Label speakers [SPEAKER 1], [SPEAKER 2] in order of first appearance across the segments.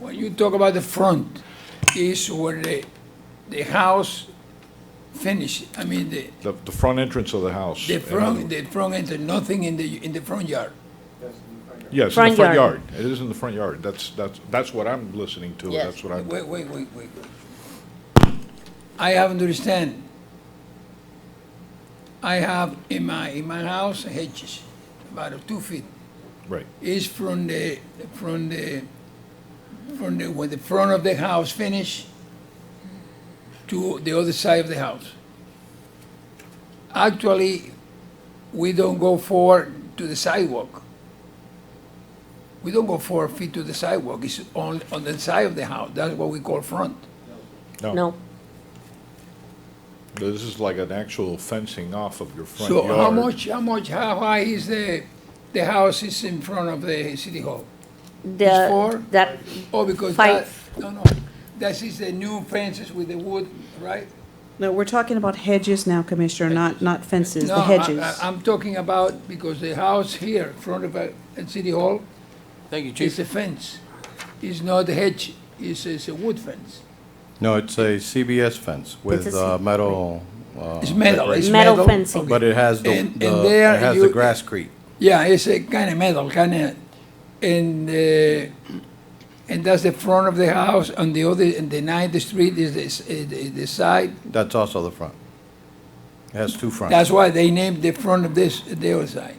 [SPEAKER 1] When you talk about the front, is where the, the house finish, I mean, the,
[SPEAKER 2] The, the front entrance of the house.
[SPEAKER 1] the
[SPEAKER 2] in other
[SPEAKER 1] front,
[SPEAKER 2] words.
[SPEAKER 1] the front entrance, nothing in the, in the front yard.
[SPEAKER 2] Yes, in
[SPEAKER 3] Front
[SPEAKER 2] the front
[SPEAKER 3] yard.
[SPEAKER 2] yard. It is in the front yard. That's, that's, that's what I'm listening to.
[SPEAKER 3] Yes.
[SPEAKER 2] That's what I'm,
[SPEAKER 1] Wait, wait, wait, wait. I haven't understand. I have in my, in my house hedges, about two feet.
[SPEAKER 2] right.
[SPEAKER 1] is from the, from the, from the, when the front of the house finish to the other side of the house. Actually, we don't go forward to the sidewalk. We don't go four feet to the sidewalk, it's on, on the side of the house, that's what we call front.
[SPEAKER 2] Oh.
[SPEAKER 3] No,
[SPEAKER 2] This is like an actual fencing off of your front
[SPEAKER 1] So
[SPEAKER 2] yard.
[SPEAKER 1] how much, how much, how high is the, the house is in front of the city hall? It's
[SPEAKER 3] the,
[SPEAKER 1] four?
[SPEAKER 3] that,
[SPEAKER 1] Oh, because that,
[SPEAKER 3] Five.
[SPEAKER 1] no, no, that is the new fences with the wood, right?
[SPEAKER 4] No, we're talking about hedges now, Commissioner, not, not fences,
[SPEAKER 1] No,
[SPEAKER 4] the
[SPEAKER 1] I-
[SPEAKER 4] hedges.
[SPEAKER 1] I- I'm talking about, because the house here, in front of, uh, at City Hall,
[SPEAKER 5] Thank you,
[SPEAKER 1] is
[SPEAKER 5] Chief.
[SPEAKER 1] a fence. It's not a hedge, it's, it's a wood fence.
[SPEAKER 6] No, it's a CBS fence with
[SPEAKER 3] It's a
[SPEAKER 6] uh,
[SPEAKER 3] C-
[SPEAKER 6] metal, uh,
[SPEAKER 1] It's metal, it's metal.
[SPEAKER 3] Metal fencing.
[SPEAKER 1] okay.
[SPEAKER 6] but it has the,
[SPEAKER 1] And- and
[SPEAKER 6] the-
[SPEAKER 1] there
[SPEAKER 6] it has
[SPEAKER 1] you-
[SPEAKER 6] the grasscrete.
[SPEAKER 1] Yeah, it's a kind of metal, kind of, and, uh, and that's the front of the house, on the other, and the ninth street is this, uh, the the side.
[SPEAKER 6] That's also the front. It has two fronts.
[SPEAKER 1] That's why they named the front of this, the other side.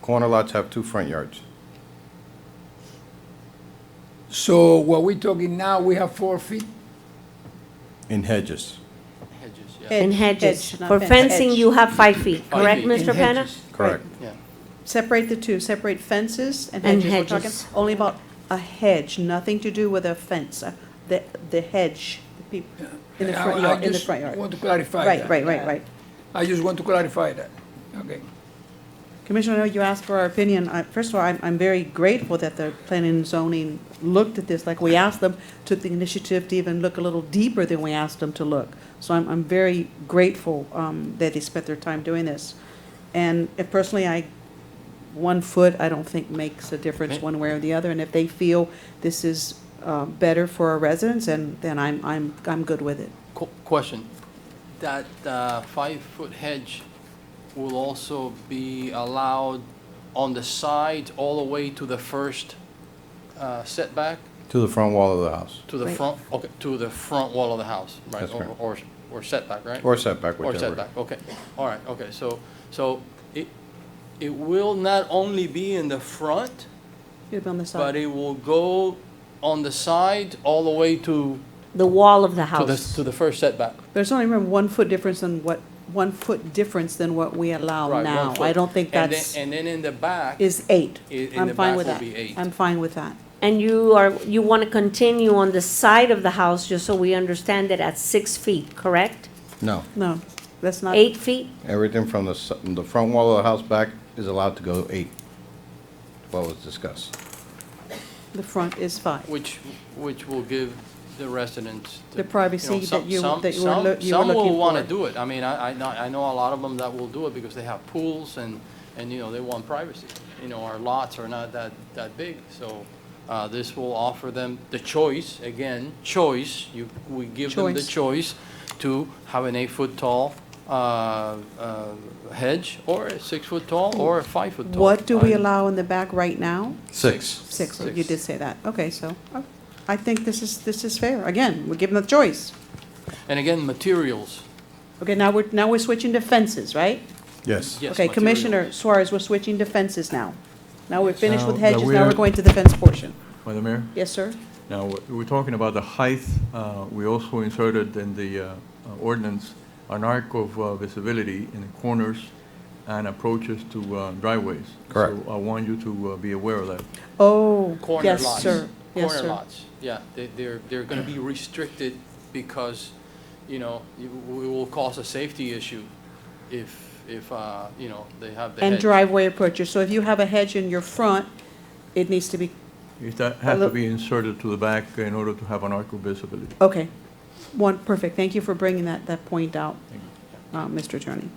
[SPEAKER 6] Corner lots have two front yards.
[SPEAKER 1] So what we're talking now, we have four feet?
[SPEAKER 6] In hedges,
[SPEAKER 5] Hedges, yeah.
[SPEAKER 3] in
[SPEAKER 4] Hedge,
[SPEAKER 3] hedges.
[SPEAKER 4] hedge, not
[SPEAKER 3] For
[SPEAKER 4] fence.
[SPEAKER 3] fencing,
[SPEAKER 4] Hedge.
[SPEAKER 3] you have five feet,
[SPEAKER 5] Five
[SPEAKER 3] correct,
[SPEAKER 5] feet.
[SPEAKER 3] Mr.
[SPEAKER 1] In
[SPEAKER 3] Penna?
[SPEAKER 1] hedges.
[SPEAKER 6] correct.
[SPEAKER 5] Yeah.
[SPEAKER 4] Separate the two, separate fences and
[SPEAKER 3] And
[SPEAKER 4] hedges. We're talking
[SPEAKER 3] hedges.
[SPEAKER 4] only about a hedge, nothing to do with a fence, uh, the, the hedge, the peop- in the
[SPEAKER 1] I-
[SPEAKER 4] front
[SPEAKER 1] I
[SPEAKER 4] yard, in the
[SPEAKER 1] just
[SPEAKER 4] front yard.
[SPEAKER 1] want to clarify
[SPEAKER 4] Right,
[SPEAKER 1] that.
[SPEAKER 4] right, right, right.
[SPEAKER 1] I just want to clarify that. Okay.
[SPEAKER 4] Commissioner, I know you asked for our opinion. I- First of all, I'm, I'm very grateful that the planning and zoning looked at this, like we asked them, took the initiative to even look a little deeper than we asked them to look. So I'm, I'm very grateful, um, that they spent their time doing this. And if personally, I, one foot, I don't think makes a difference one way or the other. And if they feel this is, uh, better for our residents, then, then I'm, I'm, I'm good with it.
[SPEAKER 5] Qu- Question. That uh, five-foot hedge will also be allowed on the side all the way to the first uh, setback,
[SPEAKER 6] To the front wall of the house,
[SPEAKER 5] to the
[SPEAKER 4] Right.
[SPEAKER 5] front, okay, to the front wall of the house, right?
[SPEAKER 6] That's
[SPEAKER 5] Or-
[SPEAKER 6] correct.
[SPEAKER 5] Or or setback, right?
[SPEAKER 6] or setback,
[SPEAKER 5] Or
[SPEAKER 6] whichever.
[SPEAKER 5] setback, okay. All right, okay, so, so it, it will not only be in the front,
[SPEAKER 4] You'd be on the side.
[SPEAKER 5] but it will go on the side all the way to,
[SPEAKER 3] The wall of the
[SPEAKER 5] to the,
[SPEAKER 3] house.
[SPEAKER 5] to the first setback.
[SPEAKER 4] There's only, remember, one foot difference than what, one foot difference than what we allow
[SPEAKER 5] Right, one
[SPEAKER 4] now. I
[SPEAKER 5] foot.
[SPEAKER 4] don't think
[SPEAKER 5] And then-
[SPEAKER 4] that's,
[SPEAKER 5] And then in the back,
[SPEAKER 4] is eight.
[SPEAKER 5] I- in
[SPEAKER 4] I'm
[SPEAKER 5] the
[SPEAKER 4] fine
[SPEAKER 5] back
[SPEAKER 4] with
[SPEAKER 5] will
[SPEAKER 4] that.
[SPEAKER 5] be eight.
[SPEAKER 4] I'm fine with that.
[SPEAKER 3] And you are, you want to continue on the side of the house, just so we understand it, at six feet, correct?
[SPEAKER 6] No,
[SPEAKER 4] No, that's not,
[SPEAKER 3] Eight feet?
[SPEAKER 6] everything from the, s- the front wall of the house back is allowed to go eight. What was discussed.
[SPEAKER 4] the front is five.
[SPEAKER 5] which, which will give the residents.
[SPEAKER 4] The privacy
[SPEAKER 5] you know, some-
[SPEAKER 4] that you-
[SPEAKER 5] some-
[SPEAKER 4] that you were loo-
[SPEAKER 5] some-
[SPEAKER 4] you were
[SPEAKER 5] Some
[SPEAKER 4] looking
[SPEAKER 5] will want to
[SPEAKER 4] for.
[SPEAKER 5] do it. I mean, I, I know, I know a lot of them that will do it because they have pools and, and, you know, they want privacy. You know, our lots are not that, that big, so uh, this will offer them the choice, again, choice. You, we give them the
[SPEAKER 4] Choice.
[SPEAKER 5] choice to have an eight-foot tall uh, uh, hedge or a six-foot tall or a five-foot tall.
[SPEAKER 4] What do we
[SPEAKER 5] I-
[SPEAKER 4] allow in the back right now?
[SPEAKER 6] Six.
[SPEAKER 4] Six, oh, you
[SPEAKER 5] Six.
[SPEAKER 4] did say that. Okay, so, uh, I think this is, this is fair. Again, we're giving them the choice.
[SPEAKER 5] And again, materials,
[SPEAKER 4] Okay, now we're, now we're switching to fences, right?
[SPEAKER 6] Yes.
[SPEAKER 5] yes,
[SPEAKER 4] Okay, Commissioner
[SPEAKER 5] materials.
[SPEAKER 4] Suarez, we're switching to fences now. Now we're finished with
[SPEAKER 7] Now that
[SPEAKER 4] hedges, now
[SPEAKER 7] we're-
[SPEAKER 4] we're going to the fence portion.
[SPEAKER 7] Madam Mayor,
[SPEAKER 4] Yes, sir?
[SPEAKER 7] now, we- we're talking about the height. uh, We also inserted in the uh, uh, ordinance an arc of uh, visibility in the corners and approaches to uh, driveways.
[SPEAKER 6] Correct.
[SPEAKER 7] So I want you to uh, be aware of that.
[SPEAKER 4] Oh,
[SPEAKER 5] corner
[SPEAKER 4] yes,
[SPEAKER 5] lots.
[SPEAKER 4] sir. Yes,
[SPEAKER 5] Corner
[SPEAKER 4] sir.
[SPEAKER 5] lots, yeah. They- They're, they're going to be restricted because, you know, it w- it will cause a safety issue if, if, uh, you know, they have the hedge.
[SPEAKER 4] And driveway approaches, so if you have a hedge in your front, it needs to be,
[SPEAKER 7] It ha- has to
[SPEAKER 4] look-
[SPEAKER 7] be inserted to the back in order to have an arc of visibility.
[SPEAKER 4] okay. One, perfect, thank you for bringing that, that point out, uh, Mr. Attorney.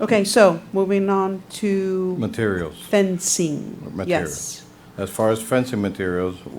[SPEAKER 4] Okay, so, moving on to
[SPEAKER 6] Materials.
[SPEAKER 4] fencing.
[SPEAKER 6] Materials.
[SPEAKER 4] Yes.
[SPEAKER 6] As far as fencing materials,